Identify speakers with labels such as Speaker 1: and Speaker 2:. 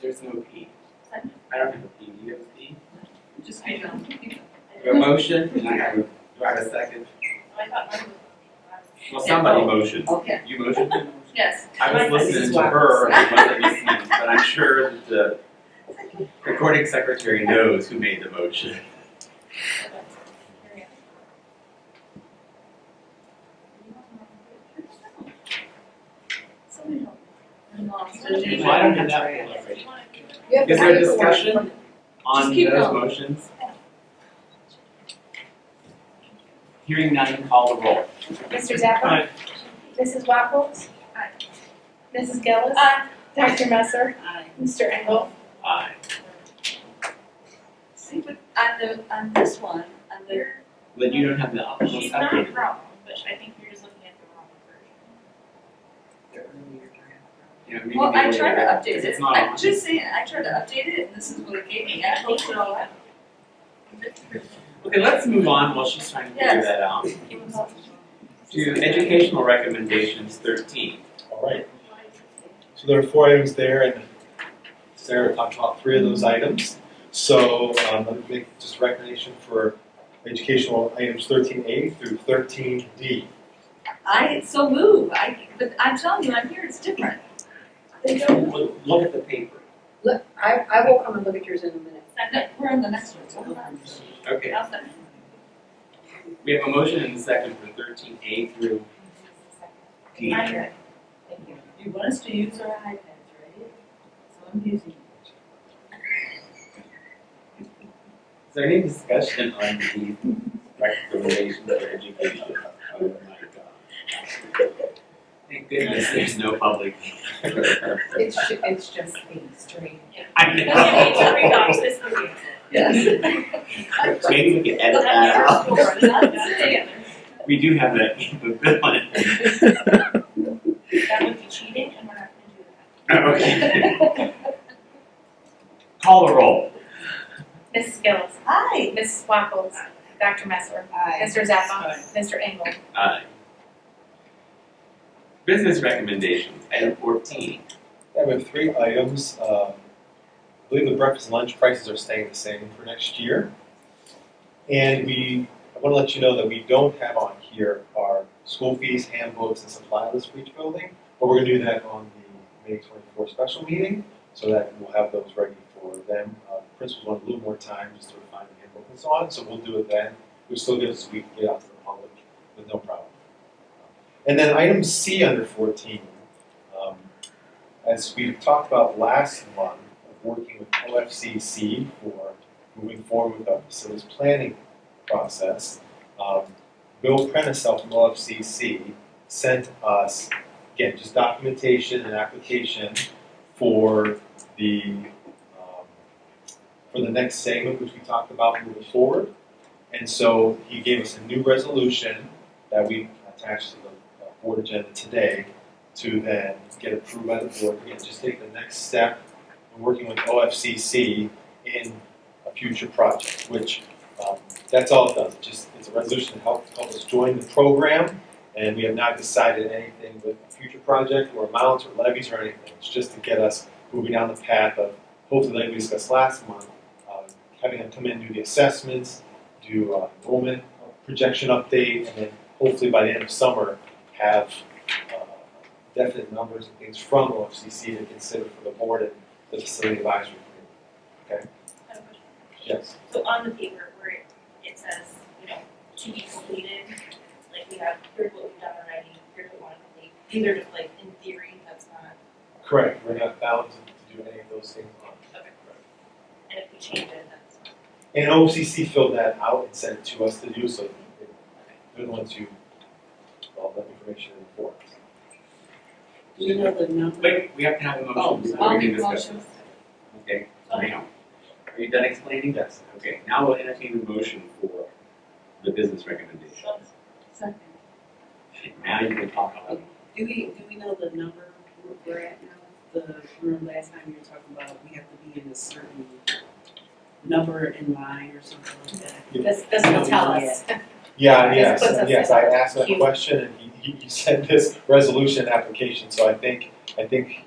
Speaker 1: There's no P.
Speaker 2: Second.
Speaker 1: I don't have a P, do you have a P?
Speaker 2: Just hang on.
Speaker 1: You have a motion, and I have, a- do I have a second?
Speaker 2: I thought mine
Speaker 1: Well, somebody motioned.
Speaker 3: Okay.
Speaker 1: You motioned?
Speaker 2: was, yes.
Speaker 1: I was listening to her, and I wasn't listening, but I'm sure that the recording secretary knows who made the motion.
Speaker 2: Somebody help me.
Speaker 1: Well, I don't have that one already. Is there discussion on
Speaker 2: Just keep
Speaker 1: those
Speaker 2: going.
Speaker 1: motions? Hearing none, call the roll.
Speaker 4: Mr. Zappa?
Speaker 1: Aye.
Speaker 4: Mrs. Wackels?
Speaker 2: Aye.
Speaker 4: Mrs. Gillis?
Speaker 2: Aye.
Speaker 4: Dr. Messer?
Speaker 3: Aye.
Speaker 4: Mr. Engel?
Speaker 1: Aye.
Speaker 3: See, but on the, on this one, on the,
Speaker 1: Then you don't have the optional
Speaker 2: She's not
Speaker 1: second.
Speaker 2: wrong, but I think you're just looking at the wrong version.
Speaker 1: You know, maybe
Speaker 3: well,
Speaker 1: the
Speaker 3: I
Speaker 1: way
Speaker 3: tried to
Speaker 1: that-
Speaker 3: update
Speaker 1: if
Speaker 3: it,
Speaker 1: It's not
Speaker 3: I'm
Speaker 1: on.
Speaker 3: just saying, I tried to update it, and this is what it gave me, I looked it all up.
Speaker 1: Okay, let's move on while she's trying to figure
Speaker 3: Yes.
Speaker 1: that out.
Speaker 2: Keep us up.
Speaker 1: To educational recommendations thirteen.
Speaker 5: All right, so there are four items there, and Sarah talked about three of those items. So um, let me make just a recommendation for educational items thirteen A through thirteen D.
Speaker 3: I, so move, I, but I'm telling you, I'm here, it's different. They don't,
Speaker 1: Well, Look at the paper.
Speaker 6: Look, I, I will come and look at yours in a minute.
Speaker 2: Second.
Speaker 3: we're on the next one, so hold on.
Speaker 1: Okay,
Speaker 2: I'll second.
Speaker 1: we have a motion and a second for thirteen A through D.
Speaker 2: Mine are-
Speaker 3: Thank you. You want us to use our iPads, right? So I'm using it.
Speaker 1: Is there any discussion on the recommendations for education? Oh my god. Thank goodness there's no public.
Speaker 6: It's, ju- it's just being strange.
Speaker 1: I
Speaker 2: We need to read
Speaker 1: know.
Speaker 2: off this movie.
Speaker 3: Yes.
Speaker 1: Maybe we can edit
Speaker 2: We'll have
Speaker 1: that
Speaker 2: yours
Speaker 1: out.
Speaker 2: for us, not us together.
Speaker 1: We do have that capability.
Speaker 2: That would be cheating and we're not gonna do that.
Speaker 1: Okay. Call the roll.
Speaker 4: Mrs. Gillis?
Speaker 3: Hi.
Speaker 4: Mrs. Wackels? Dr. Messer? Mr. Zappa? Mr. Engel?
Speaker 1: Aye. Business recommendations, item fourteen.
Speaker 5: Yeah, we have three items. Um, I believe the breakfast and lunch prices are staying the same for next year. And we, I want to let you know that we don't have on here our school fees, handbooks, and supply list for each building, but we're going to do that on the May 24 special meeting so that we'll have those ready for them. Uh, the principals want a little more time just to refine the handbook and so on, so we'll do it then. We'll still give us a week to get out to the public with no problem. And then item C under 14. Um, as we talked about last month, of working with OFCC for moving forward with our facilities planning process, um, Bill Prenisel from OFCC sent us, again, just documentation and application for the, um, for the next segment, which we talked about moving forward. And so he gave us a new resolution that we attached to the uh, board agenda today to then get approved by the board, again, just take the next step in working with OFCC in a future project, which, um, that's all it does, It just, it's a resolution to help, help us join the program, and we have not decided anything with a future project, or amounts, or levies, or anything, it's just to get us moving down the path of, hopefully, like we discussed last month, um, having them come in, do the assessments, do uh, enrollment projection update, and then hopefully by the end of summer, have uh, definite numbers and things from OFCC to consider for the board and the facility advisory committee.
Speaker 2: I have a question.
Speaker 5: Yes.
Speaker 2: So on the paper where it, it says, you know, to be completed, like we have, here's what we've done already, here's what we want to complete. These are just like, in theory, that's not,
Speaker 5: Correct. We're not bound to do any of those things. on-
Speaker 2: okay. And if we change it, that's.
Speaker 5: And OFCC filled that out and sent it to us to do, so they- they're the ones who, all that information in for us.
Speaker 3: Do you know the number?
Speaker 1: Wait, we have to have a
Speaker 3: Oh,
Speaker 1: motion before
Speaker 3: I'll
Speaker 1: we
Speaker 3: make
Speaker 1: can discuss.
Speaker 3: motions.
Speaker 1: Okay, now, are you done explaining?
Speaker 5: Yes.
Speaker 1: Okay, now we'll entertain the motion for the business recommendation.
Speaker 2: So
Speaker 3: Second.
Speaker 1: Now you can talk about it.
Speaker 7: Do we, do we know the number we're at now? The, remember last time you were talking about we have to be in a certain number in line or something like that?
Speaker 4: This, this will tell us.
Speaker 5: Yeah,
Speaker 4: This
Speaker 5: yes,
Speaker 4: puts us
Speaker 5: yes,
Speaker 4: in
Speaker 5: I asked that
Speaker 4: queue.
Speaker 5: question and he, he he sent this resolution application, so I think, I think